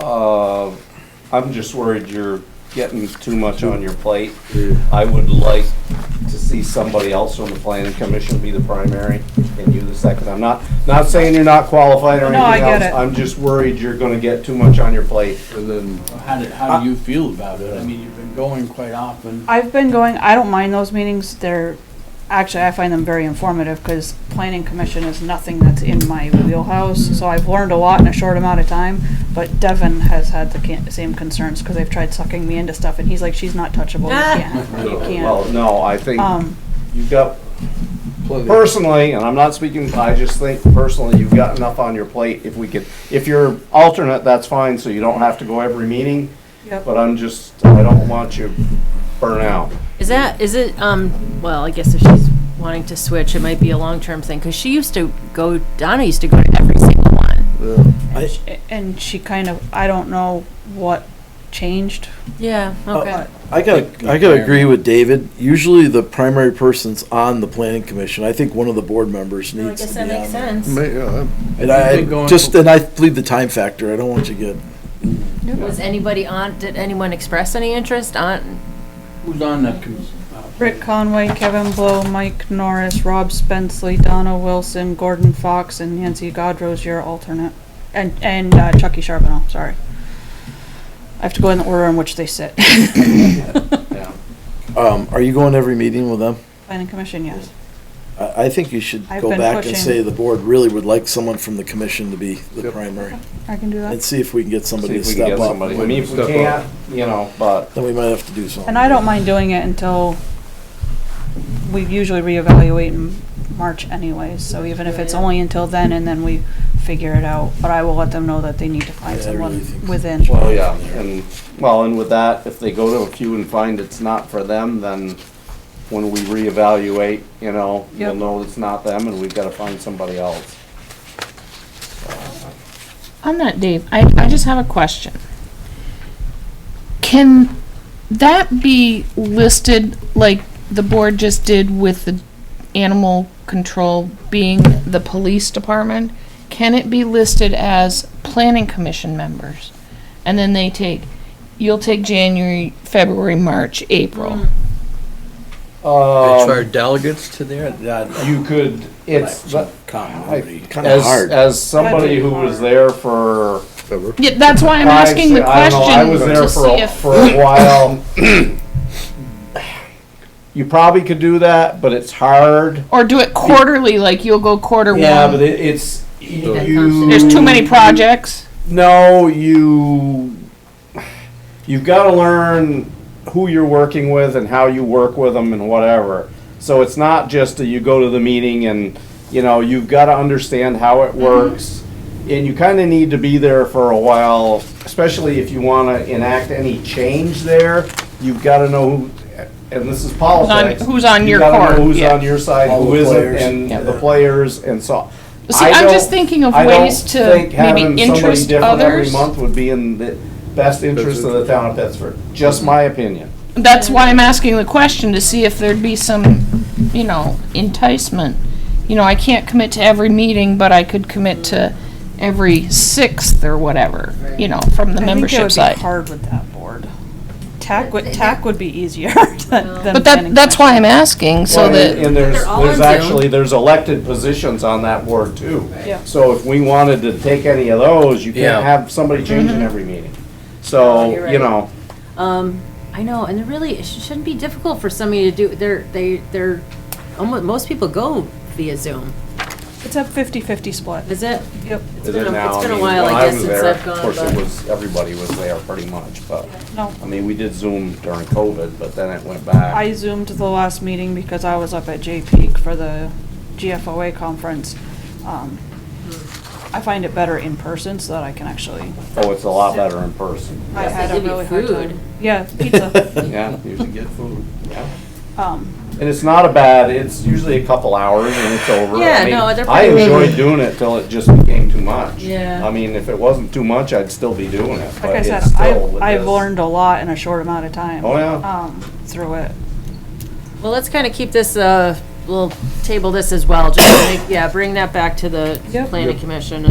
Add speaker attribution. Speaker 1: Uh, I'm just worried you're getting too much on your plate. I would like to see somebody else from the planning commission be the primary and you the second. I'm not, not saying you're not qualified or anything
Speaker 2: No, I
Speaker 1: else.
Speaker 2: get it.
Speaker 1: I'm just worried you're gonna get too much on your plate.
Speaker 3: And then,
Speaker 4: How do, how do you feel about it? I mean, you've been going quite often.
Speaker 2: I've been going, I don't mind those meetings, they're, actually, I find them very informative, because planning commission is nothing that's in my wheelhouse,
Speaker 1: Mm-hmm.
Speaker 2: so I've learned a lot in a short amount of time, but Devin has had the can- same concerns, because they've tried sucking me into stuff, and he's like, she's not touchable, you can't, have her, you
Speaker 1: Well,
Speaker 2: can't.
Speaker 1: no, I think
Speaker 2: Um,
Speaker 1: you've got,
Speaker 3: plenty of-
Speaker 1: personally, and I'm not speaking, I just think personally, you've got enough on your plate. If we could, if you're alternate, that's fine, so you don't have to go every meeting.
Speaker 2: Yep.
Speaker 1: But I'm just, I don't want you burn out.
Speaker 5: Is that, is it, um, well, I guess if she's wanting to switch, it might be a long-term thing, because she used to go, Donna used to go to every single one.
Speaker 6: I-
Speaker 2: and she kind of, I don't know what changed,
Speaker 5: Yeah, okay.
Speaker 2: but,
Speaker 6: Oh, I got, I got to agree with David. Usually the primary person's on the planning commission. I think one of the board members
Speaker 5: No, I
Speaker 6: needs
Speaker 5: guess
Speaker 6: to
Speaker 5: that
Speaker 6: be
Speaker 5: makes
Speaker 6: on there.
Speaker 5: sense.
Speaker 3: Ma- yeah,
Speaker 6: And I,
Speaker 4: You've been going
Speaker 6: just,
Speaker 4: for-
Speaker 6: and I plead the time factor. I don't want you to get,
Speaker 5: Was anybody on, did anyone express any interest on?
Speaker 4: Who's on the, com- uh,
Speaker 2: Rick Conway, Kevin Blow, Mike Norris, Rob Spenceley, Donna Wilson, Gordon Fox, and Nancy Godrose, your alternate. And, and uh, Chucky Charbonneau, sorry. I have to go in the order in which they sit.
Speaker 4: yeah.
Speaker 6: um, are you going to every meeting with them?
Speaker 2: Planning Commission, yes.
Speaker 6: I, I think you should
Speaker 2: I've
Speaker 6: go
Speaker 2: been
Speaker 6: back and
Speaker 2: pushing.
Speaker 6: say the board really would like someone from the commission to be the
Speaker 3: Yep.
Speaker 6: primary.
Speaker 2: I can do
Speaker 6: And
Speaker 2: that.
Speaker 6: see if we can get
Speaker 1: See
Speaker 6: somebody to
Speaker 1: if we can
Speaker 6: step
Speaker 1: get
Speaker 6: up.
Speaker 1: somebody. I mean, if we
Speaker 3: Step up.
Speaker 1: can't, you know, but
Speaker 6: Then we might have to do something.
Speaker 2: And I don't mind doing it until we usually reevaluate in March anyways. So even if it's
Speaker 5: Yeah.
Speaker 2: only until then and then we figure it out. But I will let them know that they need to find
Speaker 6: Yeah, I
Speaker 2: someone
Speaker 6: really think so.
Speaker 2: within.
Speaker 1: Well, yeah, and, well, and with that, if they go to a few and find it's not for them, then when we reevaluate, you know, we'll
Speaker 2: Yep.
Speaker 1: know it's not them and we've gotta find somebody else.
Speaker 7: On that, Dave, I, I just have a question. Can that be listed like the board just did with the animal control being the police department? Can it be listed as planning commission members? And then they take, you'll take January, February, March, April.
Speaker 3: As
Speaker 1: Um,
Speaker 3: far as delegates to there, that,
Speaker 1: you could, it's, but,
Speaker 3: continuity.
Speaker 6: Kind of
Speaker 1: as,
Speaker 6: hard.
Speaker 1: as somebody who was there for.
Speaker 3: Ever.
Speaker 7: Yeah, that's why I'm asking the
Speaker 1: I don't know, I was
Speaker 7: question
Speaker 1: there
Speaker 7: to
Speaker 1: for,
Speaker 7: see
Speaker 1: a-
Speaker 7: if.
Speaker 1: for a while. You probably could do that, but it's hard.
Speaker 7: Or do it quarterly, like you'll go quarter
Speaker 1: Yeah, but Mm-hmm.
Speaker 7: one.
Speaker 1: it, it's, you.
Speaker 7: There's too many projects.
Speaker 1: No, you you've got to learn who you're working with and how you work with them and whatever. So it's not just that you go to the meeting and you know you've got to understand how
Speaker 7: Mm-hmm.
Speaker 1: it works, and you kind of need to be there for a while, especially if you want to enact any change there. Youyou've got to know who. And this is politics.
Speaker 7: who's on
Speaker 1: You
Speaker 7: your
Speaker 1: gotta know
Speaker 7: court,
Speaker 1: Who's
Speaker 7: yeah.
Speaker 1: on your side?
Speaker 6: All
Speaker 1: who
Speaker 6: the
Speaker 1: isn't,
Speaker 6: players.
Speaker 1: and
Speaker 6: Yeah.
Speaker 1: the players, and so.
Speaker 7: See,
Speaker 1: I
Speaker 7: I'm
Speaker 1: don't-
Speaker 7: just thinking of
Speaker 1: I don't
Speaker 7: ways to
Speaker 1: think
Speaker 7: maybe
Speaker 1: having somebody
Speaker 7: interest
Speaker 1: different Every
Speaker 7: others.
Speaker 1: month would be in the best interest of the town of Pittsford, just my opinion.
Speaker 7: That's why I'm asking the question to see if there'd be some, you know, enticement. You know, I can't commit to every meeting, but I could commit to every sixth or whatever, you know, from the
Speaker 2: I think it
Speaker 7: membership
Speaker 2: would be
Speaker 7: side.
Speaker 2: hard with that board. TAC would,
Speaker 5: But-
Speaker 2: TAC would be easier than. than
Speaker 7: But
Speaker 2: planning
Speaker 7: that, that's why I'm asking, so
Speaker 1: And-
Speaker 7: that,
Speaker 1: And there's,
Speaker 5: They're all
Speaker 1: there's
Speaker 5: on Zoom.
Speaker 1: actually, there's elected positions on that board too.
Speaker 2: Yeah.
Speaker 1: So if we wanted to take any of those, you can't
Speaker 3: Yeah.
Speaker 1: have somebody
Speaker 7: Mm-hmm.
Speaker 1: changing every meeting.
Speaker 5: Oh,
Speaker 1: So,
Speaker 5: you're
Speaker 1: you
Speaker 5: right.
Speaker 1: know,
Speaker 5: Um, I know, and it really, it sh- shouldn't be difficult for somebody to do, they're, they, they're, almost, most people go via Zoom,
Speaker 2: commission. It's a fifty-fifty split.
Speaker 5: is it?
Speaker 2: Yep.
Speaker 5: It's
Speaker 1: is
Speaker 5: been
Speaker 1: it
Speaker 5: a-
Speaker 1: now?
Speaker 5: It's been a
Speaker 1: mean,
Speaker 5: while,
Speaker 1: when
Speaker 5: I guess,
Speaker 1: was
Speaker 5: since
Speaker 1: there,
Speaker 5: I've
Speaker 1: Of course,
Speaker 5: gone,
Speaker 1: it
Speaker 5: but,
Speaker 1: was, everybody was there pretty much, but,
Speaker 2: No,
Speaker 1: I mean, we did Zoom during COVID, but then it went back.
Speaker 2: I zoomed the last meeting because I was up at J Peak for the GFOA conference. Um,
Speaker 5: Hmm.
Speaker 2: I find it better in person so that I can actually,
Speaker 1: Oh, it's a lot better in person,
Speaker 2: I
Speaker 5: Yes, they
Speaker 2: had a
Speaker 5: give you
Speaker 2: really hard
Speaker 5: food.
Speaker 2: time. Yeah, pizza.
Speaker 1: yeah, you should get food, yeah.
Speaker 2: Um,
Speaker 1: And it's not a bad, it's usually a couple hours and it's over. I
Speaker 5: Yeah,
Speaker 1: mean,
Speaker 5: no, they're
Speaker 1: I
Speaker 5: probably-
Speaker 1: enjoyed doing it till it just became too much.
Speaker 5: Yeah.
Speaker 1: I mean, if it wasn't too much, I'd still be doing it,
Speaker 2: Like
Speaker 1: but
Speaker 2: I said,
Speaker 1: it's still.
Speaker 2: I've,
Speaker 1: it
Speaker 2: I've
Speaker 1: is-
Speaker 2: learned a lot in a short amount of time.
Speaker 1: Oh, yeah.
Speaker 2: Um, through it.
Speaker 5: well, let's kind of keep this, uh, we'll table this as well, just, to make- yeah, bring that back to the
Speaker 2: Yep.
Speaker 5: planning commission